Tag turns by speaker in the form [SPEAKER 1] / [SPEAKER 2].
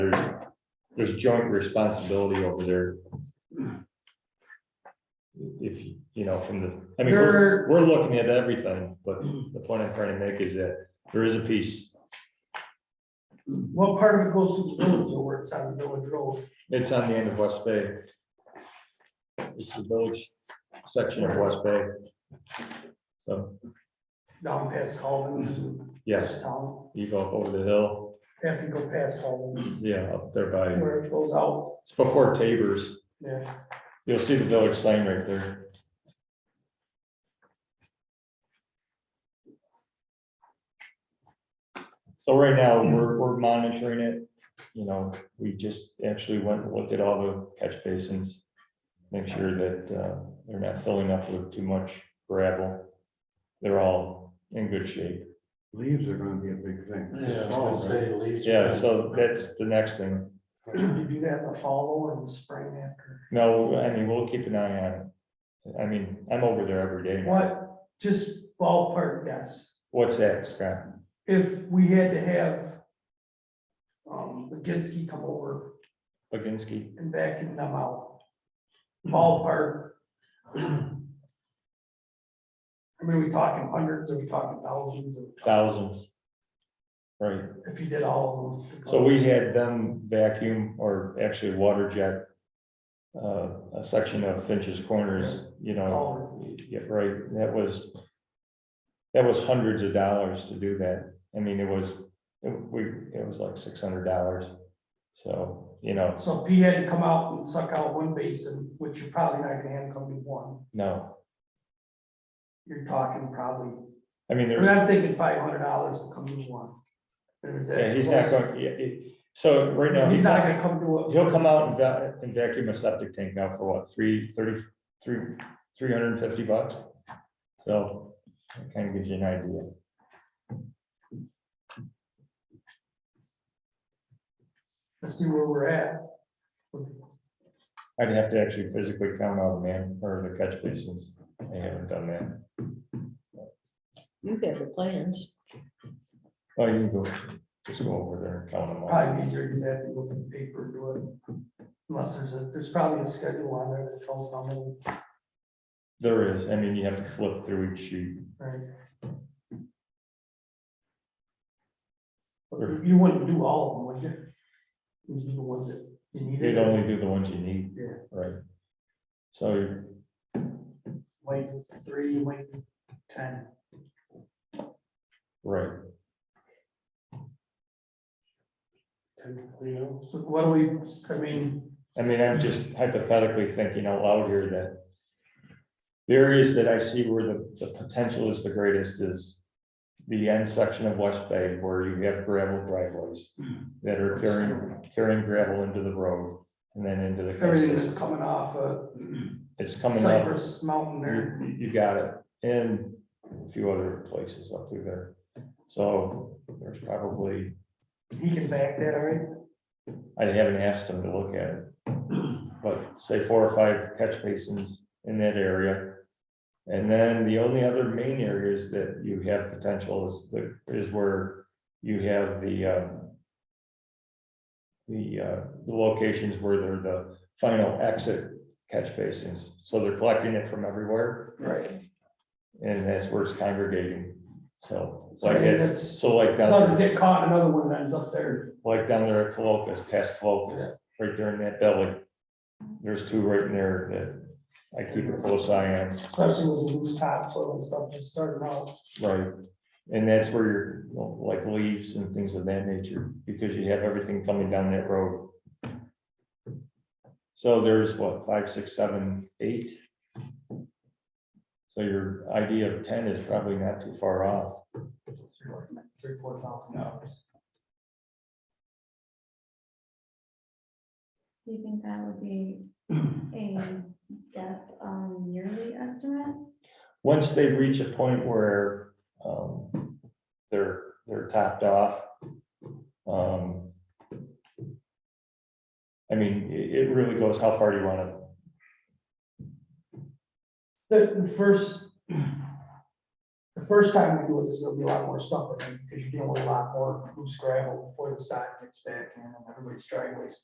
[SPEAKER 1] there's, there's joint responsibility over there. If, you you know, from the, I mean, we're, we're looking at everything, but the point I'm trying to make is that there is a piece.
[SPEAKER 2] What part of it goes through the village or it's on the village road?
[SPEAKER 1] It's on the end of West Bay. It's the village section of West Bay. So,
[SPEAKER 2] Down past Collins?
[SPEAKER 1] yes,
[SPEAKER 2] Town,
[SPEAKER 1] you go over the hill,
[SPEAKER 2] have to go past Collins,
[SPEAKER 1] yeah, up there by,
[SPEAKER 2] where it goes out,
[SPEAKER 1] it's before Tabor's.
[SPEAKER 2] yeah.
[SPEAKER 1] You'll see the village sign right there. So right now, we're, we're monitoring it, you know, we just actually went and looked at all the catch basins. Make sure that, uh, they're not filling up with too much gravel. They're all in good shape.
[SPEAKER 3] Leaves are gonna be a big thing.
[SPEAKER 4] Yeah, I was
[SPEAKER 3] Oh,
[SPEAKER 4] gonna say the leaves.
[SPEAKER 1] Yeah, so that's the next thing.
[SPEAKER 2] You do that in the fall or in the spring after.
[SPEAKER 1] No, I mean, we'll keep an eye on it. I mean, I'm over there every day.
[SPEAKER 2] What, just ballpark guess,
[SPEAKER 1] What's that, Scott?
[SPEAKER 2] if we had to have um, Baginski come over
[SPEAKER 1] Baginski.
[SPEAKER 2] and vacuum them out, ballpark. I mean, we talking hundreds, are we talking thousands? Are we talking-
[SPEAKER 1] Thousands. Right,
[SPEAKER 2] If you did all of them.
[SPEAKER 1] so we had them vacuum or actually water jet. Uh, a section of Finch's Corners, you know,
[SPEAKER 2] All
[SPEAKER 1] yeah, right, that was. That was hundreds of dollars to do that. I mean, it was, it- we, it was like six hundred dollars. So, you know,
[SPEAKER 2] So if he had to come out and suck out one basin, which you're probably not gonna have him come to one,
[SPEAKER 1] no,
[SPEAKER 2] you're talking probably,
[SPEAKER 1] I mean,
[SPEAKER 2] I
[SPEAKER 1] there's.
[SPEAKER 2] mean, I'm thinking five hundred dollars to come to one. There's that
[SPEAKER 1] Yeah, he's not
[SPEAKER 2] close.
[SPEAKER 1] going, yeah, it- so right now.
[SPEAKER 2] He's not gonna come to a.
[SPEAKER 1] He'll come out and va- and vacuum a septic tank now for what, three, thirty, three, three hundred and fifty bucks? So, that kind of gives you an idea.
[SPEAKER 2] Let's see where we're at.
[SPEAKER 1] I'd have to actually physically count all the man, or the catch basins, I haven't done that.
[SPEAKER 5] You have the plans.
[SPEAKER 1] Oh, you can go, just go over there and count them all.
[SPEAKER 2] Probably easier to do that than go through the paper and do it. Unless there's a, there's probably a schedule on there that tells how many,
[SPEAKER 1] There is, I mean, you have to flip through each sheet.
[SPEAKER 2] right? But you- You wouldn't do all of them, would you? You'd do the ones that you needed.
[SPEAKER 1] You'd only do the ones you need.
[SPEAKER 2] Yeah.
[SPEAKER 1] Right. So,
[SPEAKER 2] Like three, like ten.
[SPEAKER 1] right,
[SPEAKER 4] You know,
[SPEAKER 2] So What do we, I mean,
[SPEAKER 1] I mean, I'm just hypothetically thinking out loud here that. The areas that I see where the, the potential is the greatest is. The end section of West Bay where you have gravel driveways that are carrying, carrying gravel into the road and then into the. catch
[SPEAKER 2] everything
[SPEAKER 1] basin.
[SPEAKER 2] that's coming off of
[SPEAKER 1] It's coming up,
[SPEAKER 2] Cypress Mountain there,
[SPEAKER 1] you, you got it, and a few other places up through there. So there's probably,
[SPEAKER 2] he can back that, all right?
[SPEAKER 1] I haven't asked them to look at it. But say four or five catch basins in that area. And then the only other main areas that you have potential is the, is where you have the um, the uh, the locations where they're the final exit catch basins. So they're collecting it from everywhere
[SPEAKER 2] Right.
[SPEAKER 1] and that's where it's congregating. So
[SPEAKER 2] So I
[SPEAKER 1] like,
[SPEAKER 2] mean,
[SPEAKER 1] it-
[SPEAKER 2] that's,
[SPEAKER 1] so like
[SPEAKER 2] doesn't
[SPEAKER 1] down,
[SPEAKER 2] get caught, another one ends up there,
[SPEAKER 1] like down there at Colocas, past
[SPEAKER 2] Yeah.
[SPEAKER 1] Colocas, right there in that belly. There's two right in there that I keep a close eye on.
[SPEAKER 2] especially with the loose topsoil and stuff just starting out.
[SPEAKER 1] Right, and that's where you're, you know, like leaves and things of that nature, because you have everything coming down that road. So there's what, five, six, seven, eight? So your idea of ten is probably not too far off.
[SPEAKER 2] Three, four thousand dollars.
[SPEAKER 6] Do you think that would be a guess on yearly estimate?
[SPEAKER 1] Once they reach a point where, um, they're, they're topped off. um, I mean, it, it really goes, how far do you wanna
[SPEAKER 2] The, the first, the first time we do it, there's gonna be a lot more stuff, I think, because you're dealing with a lot more loose gravel before the sod gets back in, and everybody's driveways.